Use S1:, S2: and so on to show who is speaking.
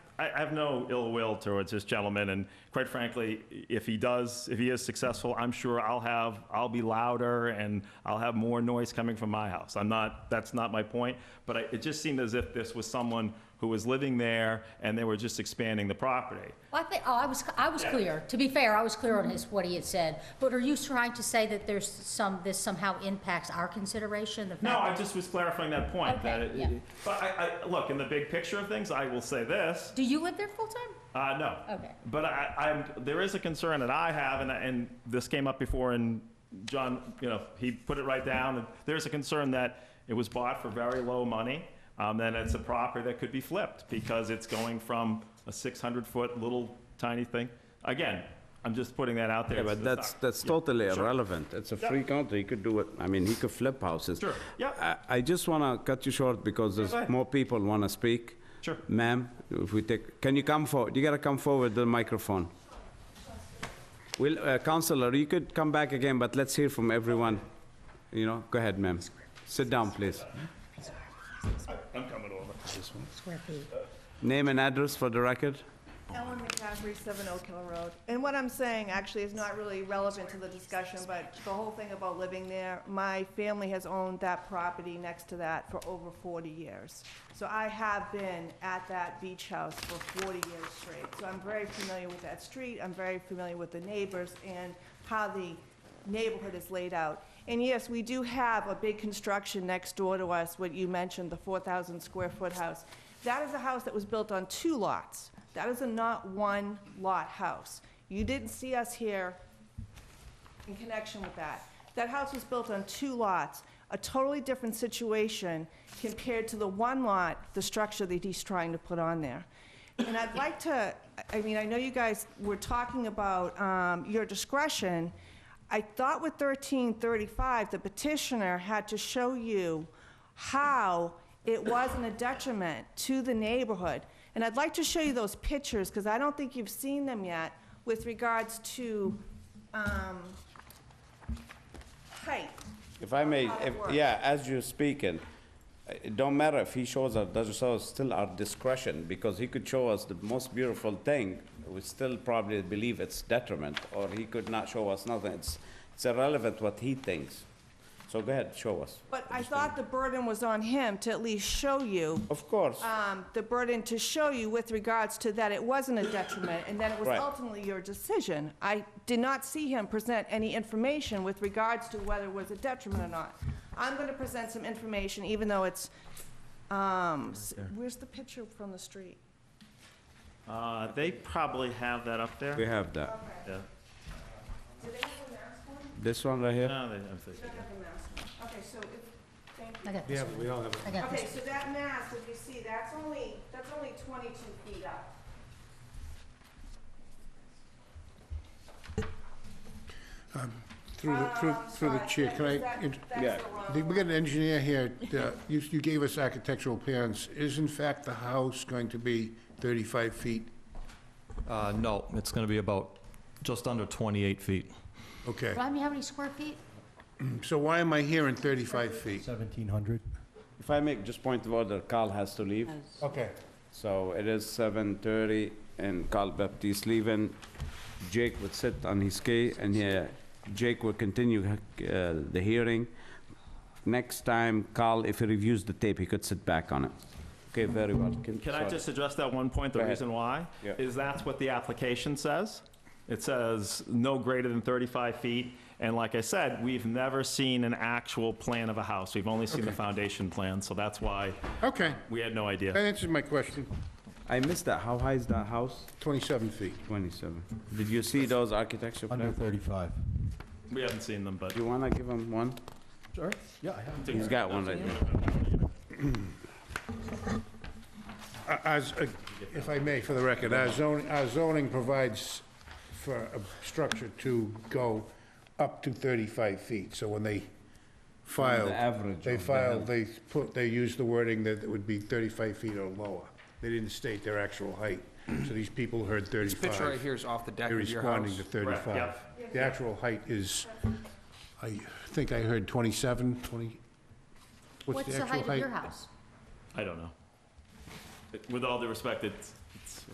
S1: I, I have no ill will towards this gentleman, and quite frankly, if he does, if he is successful, I'm sure I'll have, I'll be louder and I'll have more noise coming from my house. I'm not, that's not my point, but I, it just seemed as if this was someone who was living there and they were just expanding the property.
S2: Well, I think, oh, I was, I was
S1: Yeah.
S2: clear. To be fair, I was clear on his, what he had said. But are you trying to say that there's some, this somehow impacts our consideration? the fact
S1: No, I
S2: that-
S1: just was clarifying that point.
S2: Okay,
S1: that it-
S2: yeah.
S1: But I, I, look, in the big picture of things, I will say this,
S2: Do you live there full-time?
S1: uh, no.
S2: Okay.
S1: But I, I'm, there is a concern that I have, and, and this came up before, and John, you know, he put it right down. and There's a concern that it was bought for very low money, um, and it's a property that could be flipped because it's going from a 600-foot little tiny thing. Again, I'm just putting that out there.
S3: Yeah,
S1: It's-
S3: but
S1: it's
S3: that's,
S1: not-
S3: that's
S1: yeah,
S3: totally
S1: sure.
S3: irrelevant. It's a
S1: Yeah.
S3: free country, he could do it, I mean, he could flip houses.
S1: Sure, yeah.
S3: I, I just wanna cut you short because
S1: go
S3: there's
S1: ahead.
S3: more people wanna speak.
S1: Sure.
S3: Ma'am, if we take, can you come forward, you gotta come forward to the microphone. Well, uh, Counselor, you could come back again, but let's hear from everyone. You know, go ahead, ma'am. Sit down, please.
S1: I'm coming over.
S2: Square feet.
S3: Name and address for the record.
S4: Ellen McCaffrey, 7 Oak Hill Road. And what I'm saying actually is not really relevant to the discussion, but the whole thing about living there, my family has owned that property next to that for over 40 years. So I have been at that beach house for 40 years straight. So I'm very familiar with that street, I'm very familiar with the neighbors and how the neighborhood is laid out. And yes, we do have a big construction next door to us, what you mentioned, the 4,000 square foot house. That is a house that was built on two lots. That is a not one lot house. You didn't see us here in connection with that. That house was built on two lots, a totally different situation compared to the one lot, the structure that he's trying to put on there. And I'd like to, I mean, I know you guys were talking about um, your discretion. I thought with 1335, the petitioner had to show you how it wasn't a detriment to the neighborhood. And I'd like to show you those pictures, because I don't think you've seen them yet, with regards to um, height.
S3: If I may,
S4: How it
S3: if-
S4: works.
S3: yeah, as you're speaking, uh, it don't matter if he shows or doesn't show, it's still our discretion, because he could show us the most beautiful thing, we still probably believe it's detriment, or he could not show us nothing, it's, it's irrelevant what he thinks. So go ahead, show us.
S4: But I thought the burden was on him to at least show you,
S3: Of course,
S4: um, the burden to show you with regards to that it wasn't a detriment, and that it was
S3: Right.
S4: ultimately your decision. I did not see him present any information with regards to whether it was a detriment or not. I'm going to present some information, even though it's, um, s- where's the picture from the street?
S1: Uh, They probably have that up
S3: we
S1: there.
S3: have that.
S1: Yeah.
S4: Did they have a mask on?
S3: This one right here?
S1: No, they- I'm thinking.
S4: They have a mask on. Okay, so if, thank you.
S2: I got this.
S3: we all have
S2: I got
S4: Okay,
S2: this.
S4: so that mass, if you see, that's only, that's only twenty-two feet up.
S5: Through the, through,
S4: Um,
S5: through the
S4: sorry,
S5: chair,
S4: that-
S5: can I,
S4: that-
S5: int-
S4: That's the wrong.
S5: we got an engineer here, uh, you, you gave us architectural plans, is in fact the house going to be thirty-five feet?
S6: Uh, no, it's gonna be about just under 28 feet.
S5: Okay,
S2: Remind me how many square feet?
S5: so why am I hearing thirty-five feet?
S7: 1,700.
S3: If I make just point of order, Carl has to leave,
S5: Okay.
S3: so it is seven thirty, and Carl Baptiste leaving. Jake would sit on his key, and yeah, Jake will continue uh, the hearing. Next time, Carl, if he reviews the tape, he could sit back on it. Okay, very well.
S1: Can I
S3: sorry.
S1: just address that one point,
S3: Go
S1: the
S3: ahead.
S1: reason why?
S3: Yeah.
S1: Is that's what the application says. It says no greater than 35 feet, and like I said, we've never seen an actual plan of a house. We've only seen the foundation plan, so that's why
S5: Okay,
S1: we had no
S5: that
S1: idea.
S5: answers my question,
S3: I missed that. How high is that house?
S5: twenty-seven feet.
S3: Twenty-seven. Did you see those architecture
S7: Under
S3: plans?
S7: 35.
S1: We haven't seen them, but
S3: Do you wanna give him one?
S7: Sure, yeah, I have.
S3: He's got one right there.
S5: Uh, As, uh, if I may, for the record, our zoning, our zoning provides for a structure to go up to 35 feet, so when they filed.
S3: average
S5: They
S3: of the
S5: filed, they put, they used the wording that it would be 35 feet or lower. They didn't state their actual height, so these people heard 35.
S8: This picture right here is off the deck
S5: They're
S8: of your
S5: responding
S8: house.
S5: to 35. The actual height is, I think I heard 27, 20, what's
S2: What's
S5: the
S2: the
S5: actual height?
S2: height of your house?
S1: I don't know. With all due respect, it's